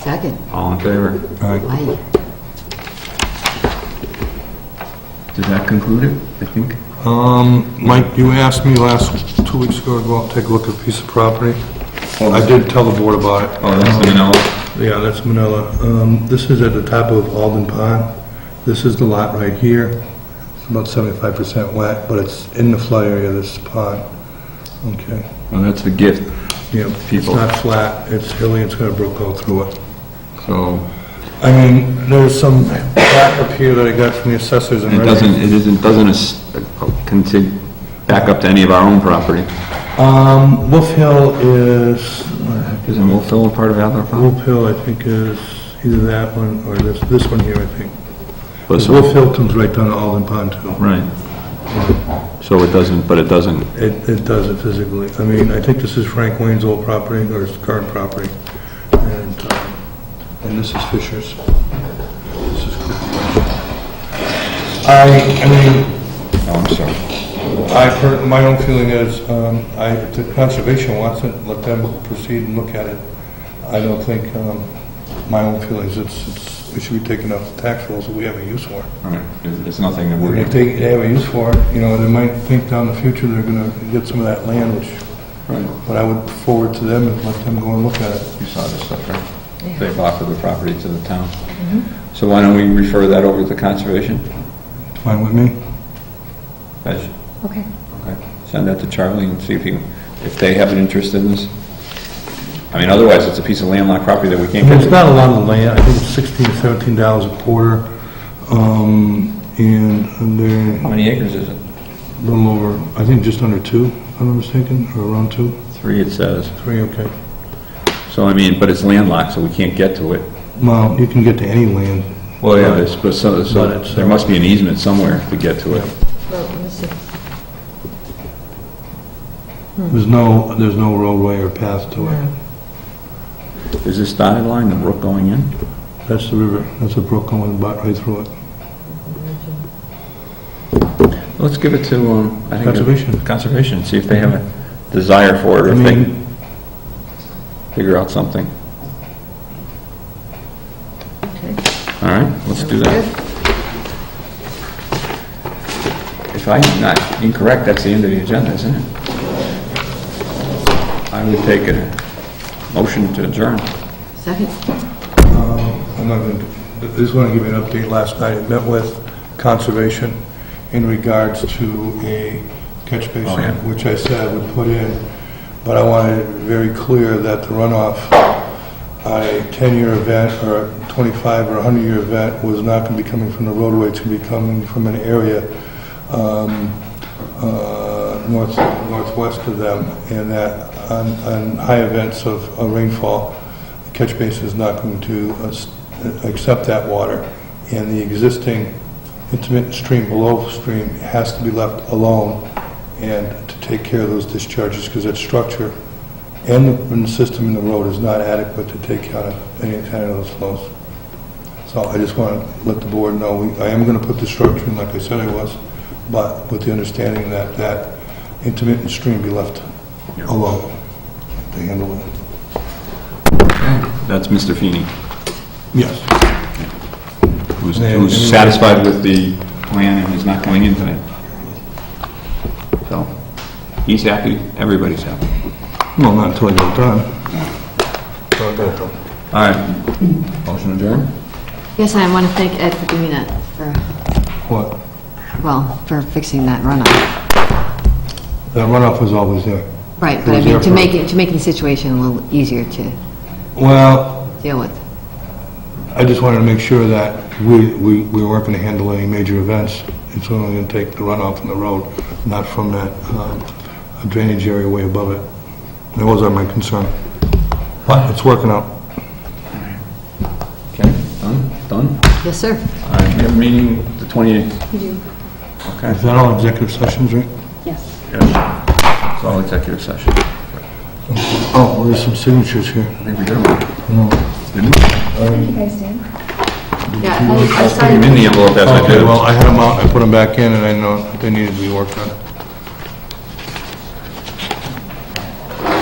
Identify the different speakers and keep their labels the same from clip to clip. Speaker 1: Second.
Speaker 2: All in favor?
Speaker 1: Aye.
Speaker 2: Does that conclude it, I think?
Speaker 3: Um, Mike, you asked me last, two weeks ago, to go out and take a look at a piece of property. I did tell the board about it.
Speaker 2: Oh, that's the Manila.
Speaker 3: Yeah, that's Manila. Um, This is at the top of Alden Pond. This is the lot right here. It's about 75% wet, but it's in the flood area of this pond. Okay.
Speaker 2: Well, that's the gift,
Speaker 3: Yeah, it's
Speaker 2: People.
Speaker 3: not flat, it's hilly, it's gonna brook all through it.
Speaker 2: so
Speaker 3: I mean, there's some back up here that I got from the assessors and...
Speaker 2: it doesn't, it isn't, doesn't as- uh, contig- back up to any of our own property.
Speaker 3: Um, Wolf Hill is, what the heck is it?
Speaker 2: Isn't Wolf Hill a part of our property?
Speaker 3: Wolf Hill, I think, is either that one or this, this one here, I think.
Speaker 2: But so-
Speaker 3: Wolf Hill comes right down to Alden Pond, too.
Speaker 2: Right. So it doesn't, but it doesn't,
Speaker 3: It, it does it physically. I mean, I think this is Frank Wayne's old property, or his current property. And, um, and this is Fisher's. This is I, I mean,
Speaker 2: oh, I'm sorry.
Speaker 3: I've heard, my own feeling is, um, I, if the conservation wants it, let them proceed and look at it. I don't think, um, my own feelings, it's, it's, it should be taken off the tax rolls that we have a use for.
Speaker 2: All right, It's it's nothing that
Speaker 3: And
Speaker 2: we're,
Speaker 3: If they they have a use for it, you know, they might think down the future they're gonna get some of that land, which,
Speaker 2: Right.
Speaker 3: but I would forward to them and let them go and look at it.
Speaker 2: you saw this stuff, right? They've offered the property to the town. So why don't we refer that over to the conservation?
Speaker 3: Fine with me?
Speaker 2: Guys,
Speaker 4: Okay.
Speaker 2: Okay. Send that to Charlie and see if he, if they have an interest in this. I mean, otherwise, it's a piece of landlocked property that we
Speaker 3: I
Speaker 2: can't get
Speaker 3: mean, it's
Speaker 2: to.
Speaker 3: not a lot of land, I think it's sixteen, seventeen dollars a quarter, um, and they're
Speaker 2: How many acres is it?
Speaker 3: a little over, I think just under two, if I'm not mistaken, or around two.
Speaker 2: Three, it says.
Speaker 3: Three, okay.
Speaker 2: So I mean, but it's landlocked, so we can't get to it.
Speaker 3: Well, you can get to any land.
Speaker 2: Well, yeah, it's, uh, but so, so
Speaker 3: But it's-
Speaker 2: there must be an easement somewhere to get to it.
Speaker 4: Well, let me see.
Speaker 3: There's no, there's no roadway or path to it.
Speaker 2: Is this dotted line the brook going in?
Speaker 3: That's the river, that's a brook going right right through it.
Speaker 2: Let's give it to, um, I think.
Speaker 3: Conservation.
Speaker 2: Conservation, see if they have a Mm-hmm. desire for it or
Speaker 3: I
Speaker 2: if they
Speaker 3: mean-
Speaker 2: can figure out something.
Speaker 4: Okay.
Speaker 2: All right, let's do that. If I'm not incorrect, that's the end of the agenda, isn't it? I would take a motion to adjourn.
Speaker 1: Second.
Speaker 3: Uh, I'm not going to, I just want to give you an update. Last night, I met with Conservation in regards to a catch
Speaker 2: Oh, yeah.
Speaker 3: basin, which I said I would put in, but I wanted it very clear that the runoff on a 10-year event, or a 25 or 100-year event, was not going to be coming from the roadway, it's going to be coming from an area um, uh, north northwest of them, and that on on high events of of rainfall, the catch basin is not going to uh, s- accept that water, and the existing intermittent stream below stream has to be left alone and to take care of those discharges, because that structure and the- and the system in the road is not adequate to take out any kind of those flows. So I just want to let the board know, we- I am going to put the structure in like I said I was, but with the understanding that that intermittent stream be left alone to handle it.
Speaker 2: That's Mr. Feeney,
Speaker 3: Yes.
Speaker 2: who's,
Speaker 3: Yeah, I mean-
Speaker 2: who's satisfied with the plan and is not coming in tonight. So, he's happy, everybody's happy.
Speaker 3: Well, not until I get it done. So I got it done.
Speaker 2: All right, motion adjourned?
Speaker 1: Yes, I want to thank Ed for doing that, for,
Speaker 3: What?
Speaker 1: well, for fixing that runoff.
Speaker 3: That runoff was always there.
Speaker 1: Right, but I
Speaker 3: was
Speaker 1: mean,
Speaker 3: there
Speaker 1: to
Speaker 3: for-
Speaker 1: make it, to make the situation a little easier to
Speaker 3: Well,
Speaker 1: deal with.
Speaker 3: I just wanted to make sure that we we we weren't going to handle any major events. It's only going to take the runoff from the road, not from that um, drainage area way above it. That was my concern. But it's working out.
Speaker 2: Okay, done, done.
Speaker 1: Yes, sir.
Speaker 2: All right, we have a meeting the 28th.
Speaker 4: You do.
Speaker 2: Okay,
Speaker 3: Is that all executive sessions, right?
Speaker 4: Yes.
Speaker 2: it's all executive session. I
Speaker 3: Oh, there's some signatures here.
Speaker 2: think we did them. Didn't we?
Speaker 4: Thank you guys, Dan.
Speaker 1: Yeah, I I
Speaker 2: Put them
Speaker 1: started,
Speaker 2: in the envelope as I did
Speaker 3: Okay, well,
Speaker 2: them.
Speaker 3: I had them out, I put them back in, and I know they needed to be worked on.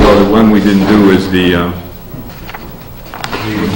Speaker 2: Well, the one we didn't do is the, uh,
Speaker 3: The